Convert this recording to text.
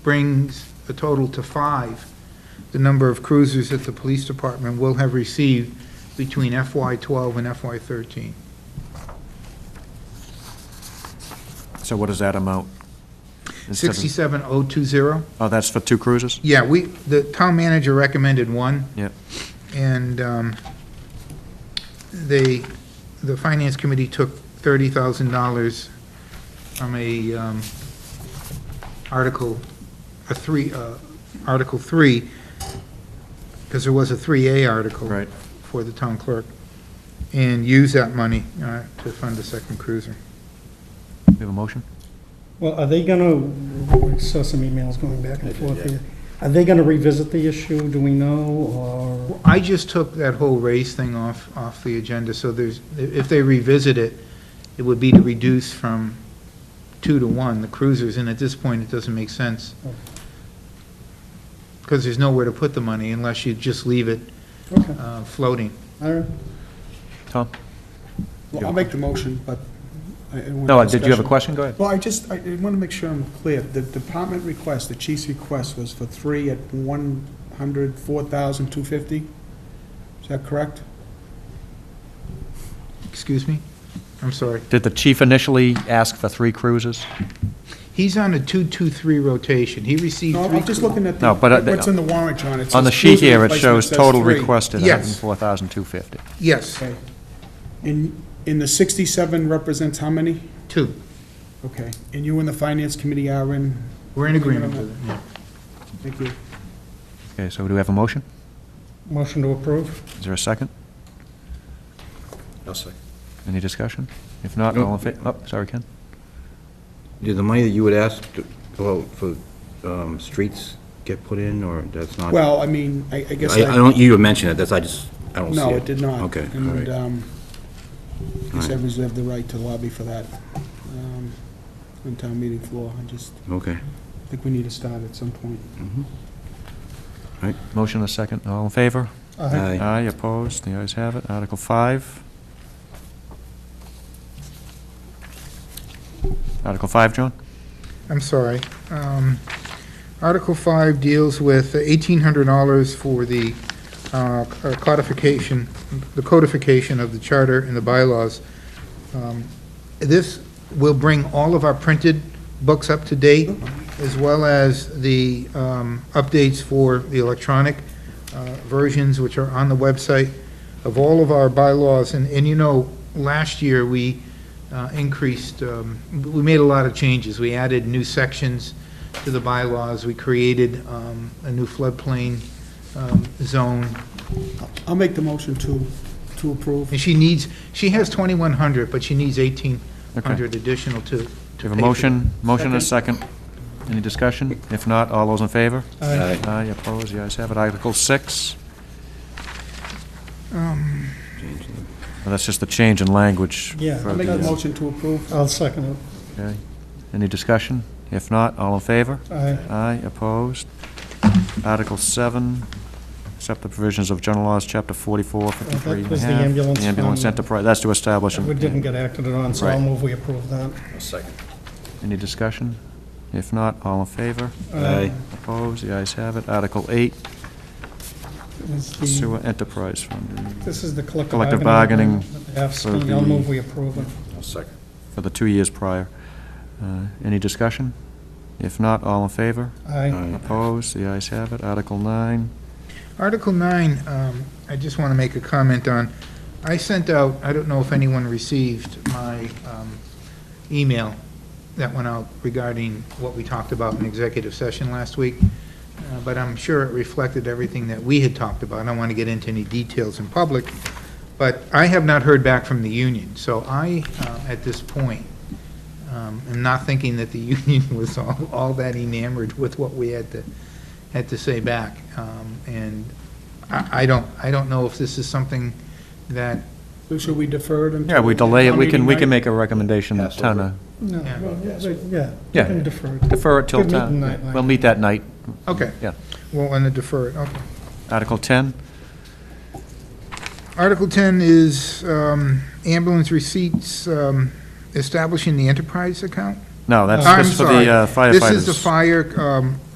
brings a total to five, the number of cruisers that the police department will have received between FY twelve and FY thirteen. So what is that amount? It doesn't- Sixty-seven oh two zero? Oh, that's for two cruisers? Yeah, we, the town manager recommended one. Yep. And um, they, the finance committee took thirty thousand dollars from a um, article, a three, uh, Article Three, because there was a three A article. Right. For the town clerk, and use that money uh, to fund a second cruiser. We have a motion? Well, are they gonna, I saw some emails going back and forth here. Are they gonna revisit the issue, do we know, or? I just took that whole race thing off, off the agenda, so there's, if they revisit it, it would be to reduce from two to one, the cruisers, and at this point, it doesn't make sense. Because there's nowhere to put the money unless you just leave it Okay, uh, floating. all right. Tom? Well, I'll make the motion, but. I- I want No, did you have a discussion. question? Go ahead. Well, I just, I want to make sure I'm clear. The department request, the chief's request was for three at one hundred, four thousand, two fifty? Is that correct? Excuse me? I'm sorry. Did the chief initially ask for three cruisers? He's on a two-two-three rotation. He received No, three. I'm just looking at the, No, but, uh, what's in the warrant, John. It On the says sheet cruiser here, it replacement shows says total three. requested, Yes. 104,250. Yes, Okay. And, and the sixty-seven represents how many? two. Okay. And you and the finance committee are in, We're in agreement with it, yeah. thank you. Okay, so do we have a motion? Motion to approve? Is there a second? I'll second. Any discussion? If not, all in favor, oh, sorry, Ken? Did the money that you would ask to go out for um, streets get put in, or that's not? Well, I mean, I, I guess. I I don't, you mentioned it, that's, I just, I don't see it. No, it did not. Okay, all And, right. um, All I right. said we have the right to lobby for that, um, on town meeting floor. I just Okay. think we need to start at some point. Motion and a second, all in favor? Aye. Aye, opposed, the ayes have it. Article 5. Article 5, John? I'm sorry. Um, Article 5 deals with $1,800 for the uh, codification, the codification of the charter and the bylaws. Um, This will bring all of our printed books up to date, as well as the um, updates for the electronic uh, versions, which are on the website, of all of our bylaws. And, and you know, last year, we uh, increased, um, we made a lot of changes. We added new sections to the bylaws, we created um, a new floodplain um, zone, I'll make the motion to, to approve. and she needs, she has 2,100, but she needs 1,800 Okay. additional to. to Do you have pay a for motion? Motion and a second. Any discussion? If not, all those in favor? Aye. Aye, opposed, the ayes have it. Article 6. Well, That's just the change in language. Yeah, for I'll make the the, uh, motion to approve. I'll second okay. Any discussion? If not, all in favor? it. Aye. Aye, opposed. Article 7, accept the provisions of general laws, Chapter 44, 53 and a That was the half. ambulance The ambulance fund. enterprise, that's to establish. a- We didn't get acted on, so I'll Right. move we approve that. Any discussion? If not, all in favor? Aye. Opposed, the ayes have it. Article 8, Is the- sewer enterprise fund, This is the collective Collective bargaining. bargaining agreement that they have for signed. I'll the- move we approve it. I'll second. for the two years prior. Uh, Any discussion? If not, all in favor? Aye. Opposed, the ayes have it. Article 9, Article 9, um, I just want to make a comment on. I sent out, I don't know if anyone received my um, email that went out regarding what we talked about in executive session last week, uh, but I'm sure it reflected everything that we had talked about. I don't want to get into any details in public, but I have not heard back from the union. So I, uh, at this point, um, am not thinking that the union was all all that enamored with what we had to had to say back. Um, And I I don't, I don't know if this is something that, So Should we defer it until? yeah, we delay it, we can, we can Town make a recommendation, Pass town, over. uh, No, Yeah. well, yeah, yeah, we Yeah. can defer it. defer it till Good meeting town. night, Mike. We'll meet that night. okay. Yeah. We'll want to defer it, okay. Article 10, Article 10 is um, ambulance receipts um, establishing the enterprise account? no, that's I'm just for the sorry. uh, firefighters. This is the fire um,